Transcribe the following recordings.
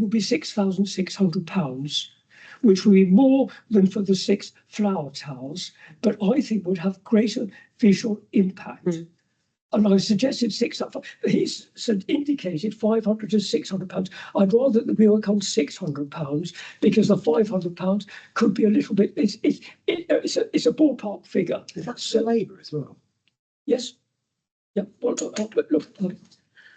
will be six thousand six hundred pounds, which will be more than for the six flower towers, but I think would have greater visual impact. Mm. And I suggested six, he's said- indicated five hundred to six hundred pounds. I'd rather that we work on six hundred pounds because the five hundred pounds could be a little bit, it's, it's, it- it's, a- it's a ballpark figure. That's So- labour as well. Yes. Yeah, well, look, look, look, look, look,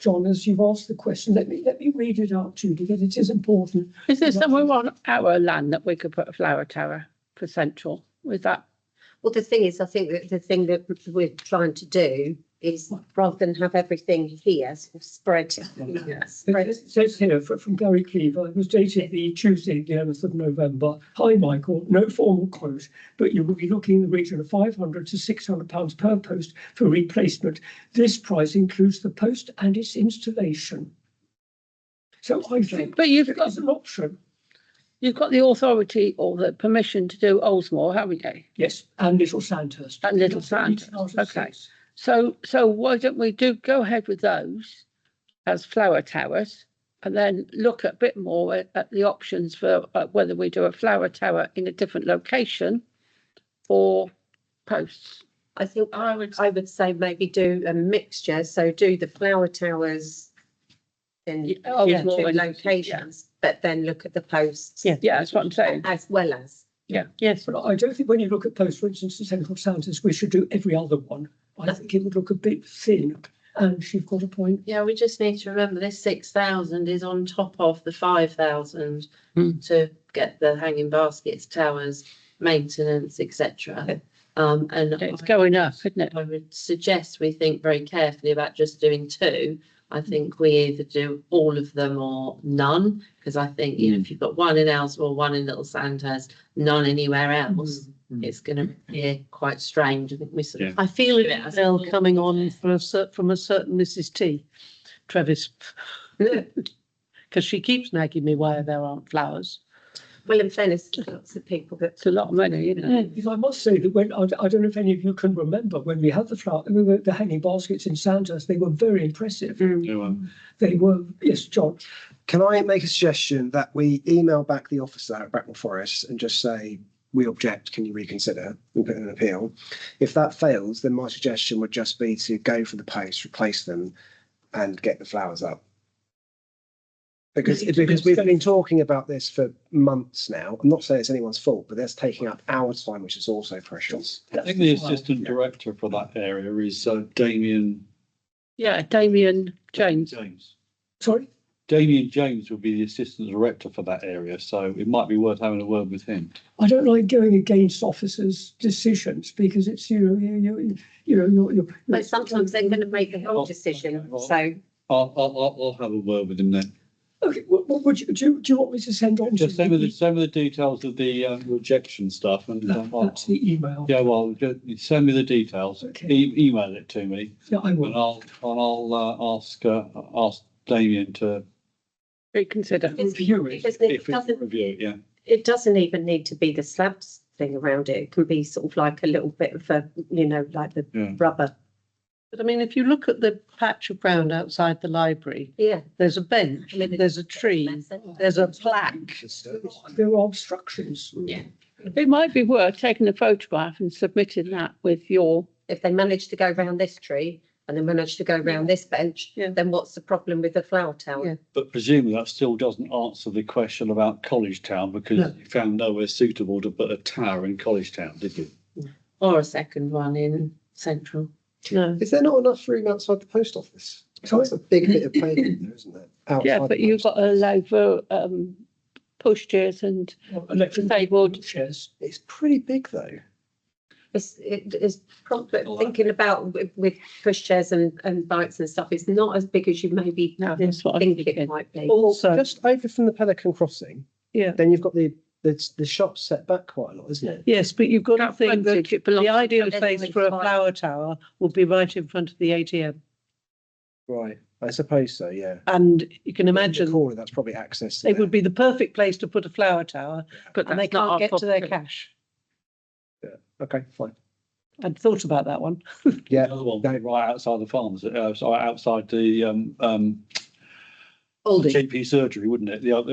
John, as you've asked the question, let me, let me read it out to you because it is important. Is there Right. somewhere on our land that we could put a flower tower for central? With that, Well, the thing is, I think that the thing that we're trying to do is rather than have everything here sort of spread. spread- It says here fr- from Gary Cleaver, it was dated the Tuesday, the eleventh of November. Hi, Michael, no formal quote, but you will be looking in the region of five hundred to six hundred pounds per post for replacement. This price includes the post and its installation. So I think but you've got, it's an option, you've got the authority or the permission to do Oldsmore, haven't you? yes, and Little Sandhurst. And Little Nothing needs Sandhurst, an article okay. six. So, so why don't we do, go ahead with those as flower towers? And then look a bit more at, at the options for uh, whether we do a flower tower in a different location or posts. I think I would, I would say maybe do a mixture, so do the flower towers in Yeah, two oh, yeah. locations, but then look at the posts. Yeah. yeah, that's what I'm saying. As well as, Yes, But I don't think when you look at post, for instance, the central Sandhurst, we should do every other one. I think it would look a bit thin and she's got a point. yeah, we just need to remember this six thousand is on top of the five thousand Hmm. to get the hanging baskets, towers, maintenance, etc. Um, and It's I- going up, isn't it? I would suggest we think very carefully about just doing two. I think we either do all of them or none, because I think, you know, if you've got one in Ellsworth, one in Little Sandhurst, none anywhere else, Mm. it's going to be quite strange. I think we sort of I feel Yeah, I it now suppose. coming on from a cer- from a certain Mrs. T, Travis, because she keeps nagging me why there aren't flowers. well, in fairness, lots of people that It's a lot of money, isn't it? Because I must say that when, I, I don't know if any of you can remember, when we had the flower, the, the hanging baskets in Sandhurst, they were very impressive. They were, yes, John, Can I make a suggestion that we email back the officer at Bracknell Forest and just say, we object, can you reconsider? We put in an appeal. If that fails, then my suggestion would just be to go for the posts, replace them and get the flowers up. Because, Really? because we've been talking about this for months now. I'm not saying it's anyone's fault, but that's taking up our time, which is also precious. I that's think the the flower. assistant director for that area is uh, Damien Yeah, Damien James. James. sorry, Damien James will be the assistant director for that area, so it might be worth having a word with him. I don't like going against officers' decisions because it's, you know, you, you, you know, you're, you're. But sometimes they're going to make the wrong Well, decision, well, so I'll, I'll, I'll, I'll have a word with him then. Okay, well, well, would you, do you, do you want me to send on? to Just send me the, you- send me the details of the um, rejection stuff and um, I'll, That's the email. yeah, well, ju- send me the details. Okay. E- Email it to me Yeah, I and will. I'll, and I'll uh, ask, uh, ask Damien to Reconsider. It's- View it. because it if we doesn't, review it, yeah. it doesn't even need to be the slabs thing around it. It can be sort of like a little bit of a, you know, like the Yeah. rubber. But I mean, if you look at the patch of ground outside the library, Yeah. there's a bench, I mean, there's a tree, there's a plaque. There are obstructions. It might be worth taking a photograph and submitting that with your, If they manage to go round this tree and they manage to go round this bench, Yeah. then what's the problem with the flower Yeah. tower? But presumably that still doesn't answer the question about College Town because you found nowhere suitable to put a tower in College Town, did you? Or a second one in central. No. Is there not enough room outside the post office? So that's a big bit of pavement there, isn't it? yeah, Outside but the you've post got to office. allow for, um, pushchairs and Electric disabled chairs. It's pretty big though. It's, it is probably Well, I- thinking about with- with pushchairs and, and bikes and stuff, it's not as big as you maybe No, that's what I'm think thinking. it might be. Also, just over from the Pelican Crossing. Yeah. Then you've got the, the, the shop set back quite a lot, isn't it? Yes, but you've got to That think that frontage, it belongs the to ideal the place for a fire. flower tower would be right in front of the ATM. Right. I suppose so, yeah. And you can The imagine Corner, that's probably access. to it there. would be the perfect place to put a flower tower But and they that's not our can't get to their property. cash. Okay, fine. I'd thought about that one. Yeah. The other one, That- right outside the farms, uh, sorry, outside the, um, um, Aldi. GP surgery, wouldn't it? The other,